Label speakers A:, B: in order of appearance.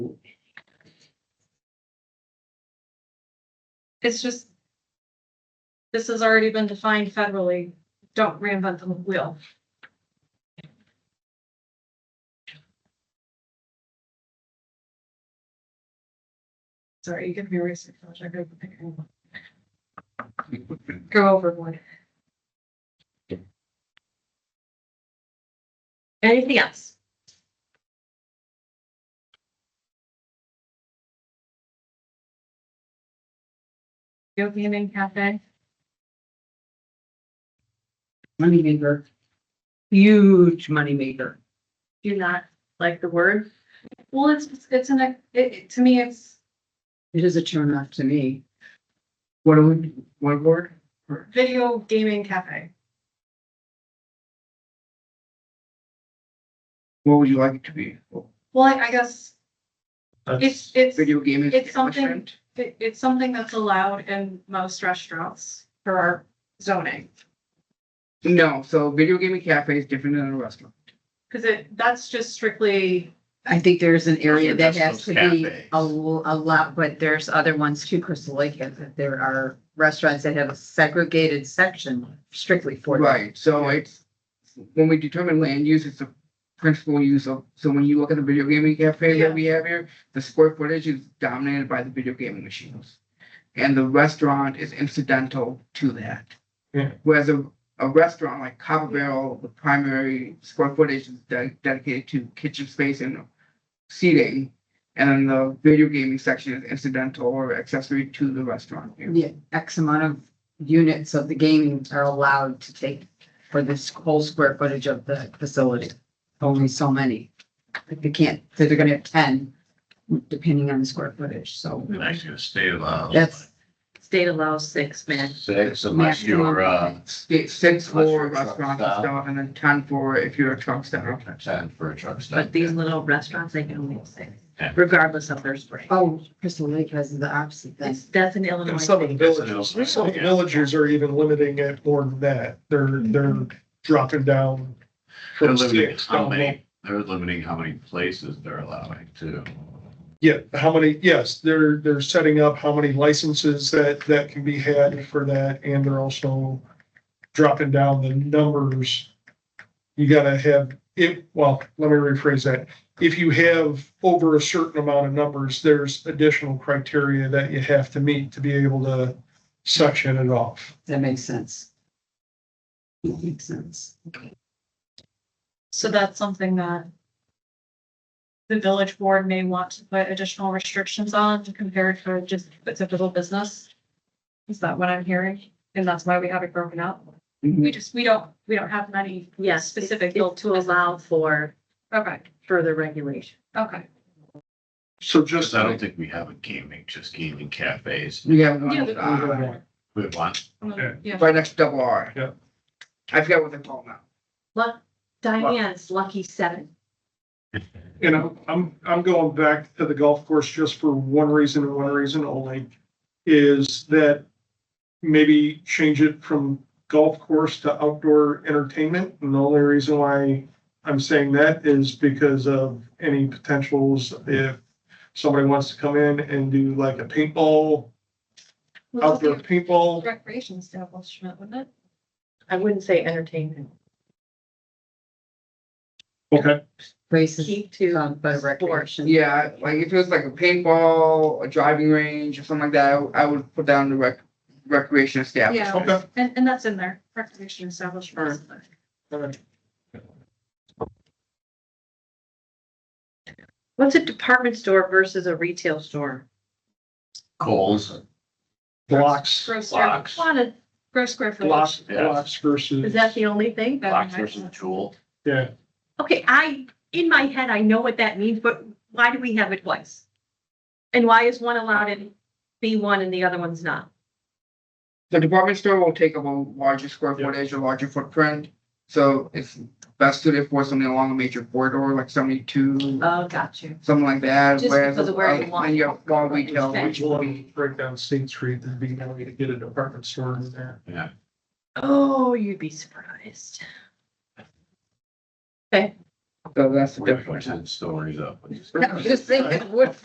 A: It's just. This has already been defined federally. Don't reinvent the wheel. Sorry, you give me a research project. Go overboard. Anything else? Go Gaming Cafe?
B: moneymaker. Huge moneymaker.
A: Do not like the word? Well, it's, it's an, it- it, to me, it's,
B: It is a turn off to me. What do we, one word?
A: Video gaming cafe.
C: What would you like it to be?
A: Well, I I guess it's, it's,
C: Video gaming?
A: it's something- it- it's something that's allowed in most restaurants for our zoning.
C: No, so video gaming cafe is different than a restaurant.
A: Cause it, that's just strictly,
B: I think there's an area that
D: Those are
B: has to
D: those
B: be
D: cafes.
B: a, l- a lot, but there's other ones too, Crystal Lake, has it. there are restaurants that have a segregated section strictly for. that.
C: Right, so it's, when we determine land use, it's the principal use of, so when you look at the video gaming cafe
A: Yeah.
C: that we have here, the square footage is dominated by the video gaming machines. And the restaurant is incidental to that.
D: Yeah.
C: Whereas a, a restaurant like Copper Barrel, the primary square footage is de- dedicated to kitchen space and seating. And then the video gaming section is incidental or accessory to the restaurant. here.
B: The X amount of units of the gaming are allowed to take for this whole square footage of the facility. Only so many. Like they can't, so they're gonna have ten, depending on the square footage, so
D: And actually, the state allows.
B: that's.
E: State allows six men.
D: Six unless
B: maximum.
D: you're, uh,
C: Sta- six
D: Unless
C: for
D: you're a truck
C: restaurants and
D: stop.
C: stuff, and then ten for if you're a truck stop.
D: ten for a truck stop.
E: But these little restaurants, they can only have six,
D: Yeah.
E: regardless of their spring.
B: Oh, Crystal Lake has the opposite thing.
E: It's, that's an
F: And
E: Illinois
F: some of the
E: thing.
D: That's an
F: villages, some of the
D: Illinois, yeah.
F: villages are even limiting it more than that. They're, they're dropping down.
D: They're
F: from
D: limiting
F: six
D: how
F: down low.
D: many, they're limiting how many places they're allowing too.
F: Yeah, how many, yes, they're, they're setting up how many licenses that, that can be had for that, and they're also dropping down the numbers. You gotta have, if, well, let me rephrase that. If you have over a certain amount of numbers, there's additional criteria that you have to meet to be able to section it off.
B: That makes sense. That makes sense.
A: so that's something that. The village board may want to put additional restrictions on to compare it to just a typical business. Is that what I'm hearing? And that's why we have it broken up. We just, we don't, we don't have many.
E: Mm-hmm. Yes,
A: Specific
E: specific
A: built
E: to allow for
A: Okay,
E: further regulation.
A: okay.
C: So
D: Just, I don't think we have a gaming, just gaming cafes.
C: We have one,
A: Yeah, the-
C: uh,
D: We have one.
F: Okay.
A: Yeah.
C: right next to double R.
F: Yeah.
C: I forgot what they're called now.
E: Look, Diane's lucky seven.
F: You know, I'm, I'm going back to the golf course just for one reason and one reason only, is that maybe change it from golf course to outdoor entertainment. And the only reason why I'm saying that is because of any potentials if somebody wants to come in and do like a paintball,
A: Well,
F: outdoor
A: it's a
F: paintball.
A: Recreation establishment, wouldn't it?
E: I wouldn't say entertainment.
F: Okay.
B: Places,
E: Keep to
B: um, but recreation.
C: Yeah, like if it was like a paintball, a driving range or something like that, I I would put down the rec, recreation establishment.
F: Okay.
A: And, and that's in there, recreation establishment. is in there.
F: all right.
E: What's a department store versus a retail store?
D: Coles,
F: Blocks,
A: Gross square,
D: Blocks.
A: lot of gross square footage.
F: blocks, blocks versus.
E: Is that the only thing?
D: Fox versus Jewel.
F: Yeah,
E: Okay, I, in my head, I know what that means, but why do we have it twice? And why is one allowed in B one and the other one's not?
C: The department store will take up a larger square
F: Yeah.
C: footage, a larger footprint. So it's best suited for something along a major corridor, like seventy-two,
E: Oh, got you.
C: something like that.
E: Just
C: whereas,
E: because of where you
C: uh,
E: want
C: When you have small
E: what you
C: retail,
E: spend.
C: which will
F: Well,
C: be
F: break down State Street, there'd be no way to get a department store in there.
E: Oh, you'd be surprised.
C: So that's the
D: We're
C: difference.
D: ten stories up.
B: I'm just saying, it would